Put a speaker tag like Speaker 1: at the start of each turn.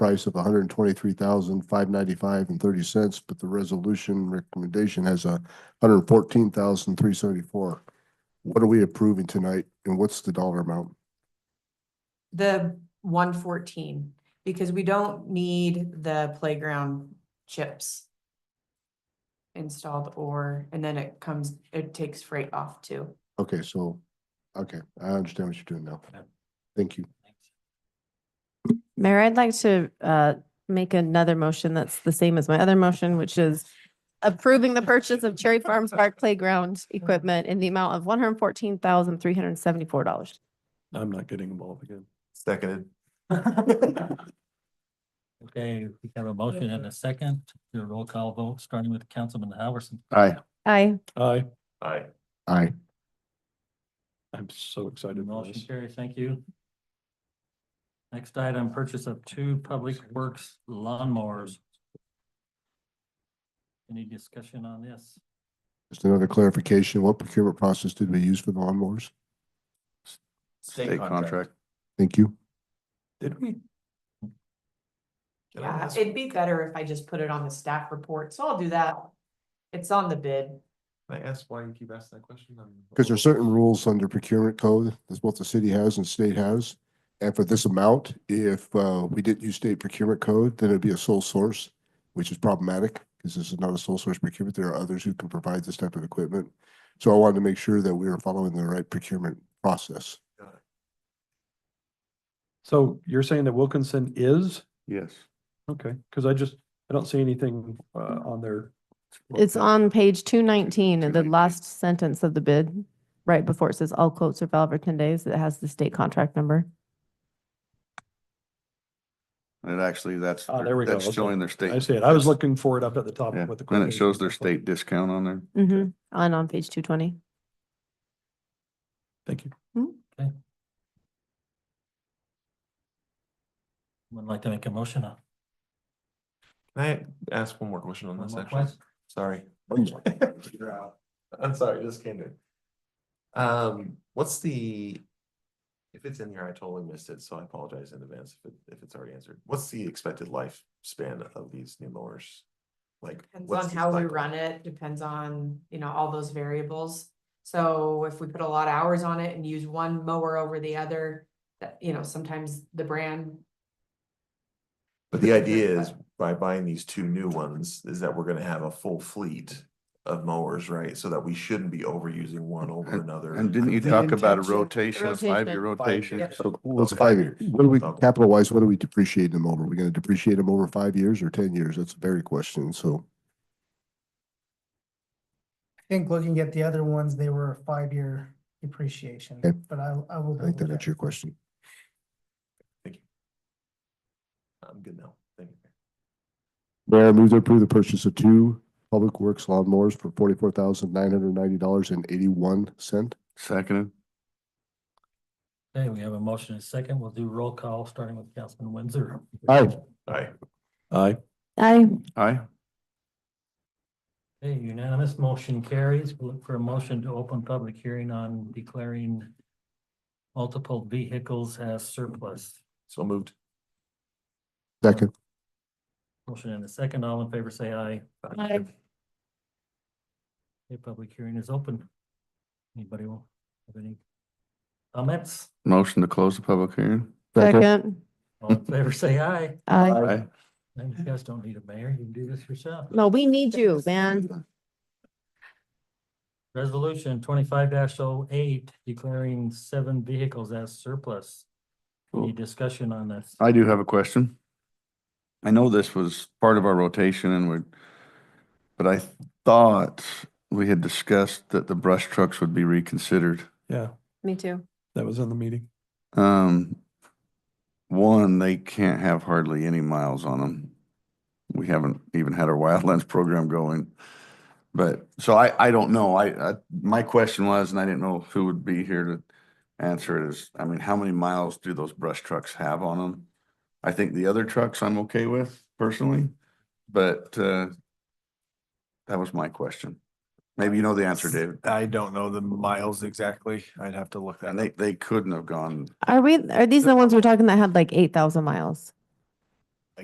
Speaker 1: price of one hundred and twenty-three thousand, five ninety-five and thirty cents, but the resolution recommendation has a hundred and fourteen thousand, three seventy-four. What are we approving tonight and what's the dollar amount?
Speaker 2: The one fourteen, because we don't need the playground chips. Installed or, and then it comes, it takes freight off too.
Speaker 1: Okay, so, okay, I understand what you're doing now.
Speaker 3: Yeah.
Speaker 1: Thank you.
Speaker 4: Mayor, I'd like to uh, make another motion that's the same as my other motion, which is approving the purchase of Cherry Farms Park Playground equipment in the amount of one hundred and fourteen thousand, three hundred and seventy-four dollars.
Speaker 5: I'm not getting involved again.
Speaker 6: Seconded.
Speaker 3: Okay, we have a motion and a second, do a roll call vote, starting with Councilman Howerson.
Speaker 1: Aye.
Speaker 4: Aye.
Speaker 5: Aye,
Speaker 6: Aye.
Speaker 1: Aye.
Speaker 5: I'm so excited for
Speaker 3: Motion
Speaker 5: this.
Speaker 3: carries, thank you. Next item, purchase of two Public Works lawnmowers. Any discussion on this?
Speaker 1: Just another clarification, what procurement process did we use for the lawnmowers?
Speaker 6: State contract.
Speaker 1: Thank you.
Speaker 5: Did we?
Speaker 6: Did I
Speaker 2: Yeah,
Speaker 6: miss-
Speaker 2: it'd be better if I just put it on the staff report, so I'll do that. It's on the bid.
Speaker 6: Can I ask why you keep asking that question? I'm-
Speaker 1: Because there are certain rules under procurement code that both the city has and state has. And for this amount, if uh, we didn't use state procurement code, then it'd be a sole source, which is problematic because this is not a sole source procurement. There are others who can provide this type of equipment. So I wanted to make sure that we were following the right procurement process.
Speaker 5: So you're saying that Wilkinson is?
Speaker 6: Yes.
Speaker 5: Okay, because I just, I don't see anything uh, on there.
Speaker 4: It's on page two nineteen, in the
Speaker 6: 219.
Speaker 4: last sentence of the bid, right before it says all quotes are valid for ten days. It has the state contract number.
Speaker 7: And it actually, that's,
Speaker 5: Ah,
Speaker 7: their-
Speaker 5: there we go,
Speaker 7: that's
Speaker 5: okay.
Speaker 7: showing their
Speaker 5: I
Speaker 7: state.
Speaker 5: see it. I was
Speaker 7: that's-
Speaker 5: looking for it up at the top
Speaker 7: yeah.
Speaker 5: with the.
Speaker 7: Then it shows their
Speaker 5: quotation.
Speaker 7: state discount on there.
Speaker 4: Mm-hmm. And on page two twenty.
Speaker 5: Thank you.
Speaker 3: Would like to make a motion on.
Speaker 6: Can I ask one more question on
Speaker 3: one
Speaker 6: this
Speaker 3: more
Speaker 6: actually?
Speaker 3: quest?
Speaker 6: Sorry.
Speaker 1: Please.
Speaker 6: You're out. I'm sorry, just came to. Um, what's the? If it's in here, I totally missed it, so I apologize in advance if it, if it's already answered. What's the expected lifespan of these new mowers? Like.
Speaker 2: Depends
Speaker 6: what's
Speaker 2: on
Speaker 6: the
Speaker 2: how we
Speaker 6: cycle?
Speaker 2: run it, depends on, you know, all those variables. So if we put a lot of hours on it and use one mower over the other, that, you know, sometimes the brand.
Speaker 6: But the idea is by buying these two new ones is that we're gonna have a full fleet of mowers, right? So that we shouldn't be overusing one over another.
Speaker 7: And didn't you
Speaker 6: The
Speaker 7: talk about a
Speaker 6: intention-
Speaker 7: rotation, a five-year rotation?
Speaker 6: Five-year.
Speaker 7: So
Speaker 1: Well, it's five years. What do we,
Speaker 6: Okay.
Speaker 1: capital wise, what do we depreciate them over? We're going to depreciate them over five years or ten years? That's a very question. So
Speaker 8: I think looking at the other ones, they were a five-year depreciation,
Speaker 1: Okay.
Speaker 8: but I, I will.
Speaker 1: I think
Speaker 8: double
Speaker 1: that
Speaker 8: check.
Speaker 1: answered your question.
Speaker 6: I'm good now. Thank you.
Speaker 1: Mayor, I move to approve the purchase of two Public Works lawnmowers for forty-four thousand nine hundred ninety dollars and eighty-one cent.
Speaker 7: Seconded,
Speaker 3: Okay, we have a motion and a second, we'll do roll call, starting with Councilman Windsor.
Speaker 1: Aye.
Speaker 6: Aye.
Speaker 5: Aye.
Speaker 4: Aye.
Speaker 7: aye.
Speaker 3: Okay, unanimous motion carries. We'll look for a motion to open public hearing on declaring multiple vehicles as surplus.
Speaker 6: So moved.
Speaker 1: Second.
Speaker 3: Motion and a second. All in favor, say aye.
Speaker 4: Aye.
Speaker 3: The public hearing is open. Anybody want- have any comments?
Speaker 7: Motion to close the public hearing.
Speaker 4: Second.
Speaker 3: All in favor, say aye.
Speaker 4: Aye.
Speaker 7: Aye.
Speaker 3: Now, You guys don't need a mayor. You can do this yourself.
Speaker 4: No, we need you, man.
Speaker 3: Resolution twenty-five 8 declaring seven vehicles as surplus. Any
Speaker 7: Cool.
Speaker 3: discussion on this?
Speaker 7: I do have a question. I know this was part of our rotation and we're, but I thought we had discussed that the brush trucks would be reconsidered.
Speaker 5: Yeah,
Speaker 4: Me too.
Speaker 5: that was in the meeting.
Speaker 7: Um, one, they can't have hardly any miles on them. We haven't even had our wildlands program going. But, so I, I don't know. I, I, my question was, and I didn't know who would be here to answer it is, I mean, how many miles do those brush trucks have on them? I think the other trucks I'm okay with personally, but, uh, that was my question. Maybe you know the answer, David.
Speaker 9: I don't know the miles exactly. I'd have to look that
Speaker 7: And
Speaker 9: up.
Speaker 7: they, they couldn't have gone
Speaker 4: Are we, are these the ones we're talking that had like eight thousand miles?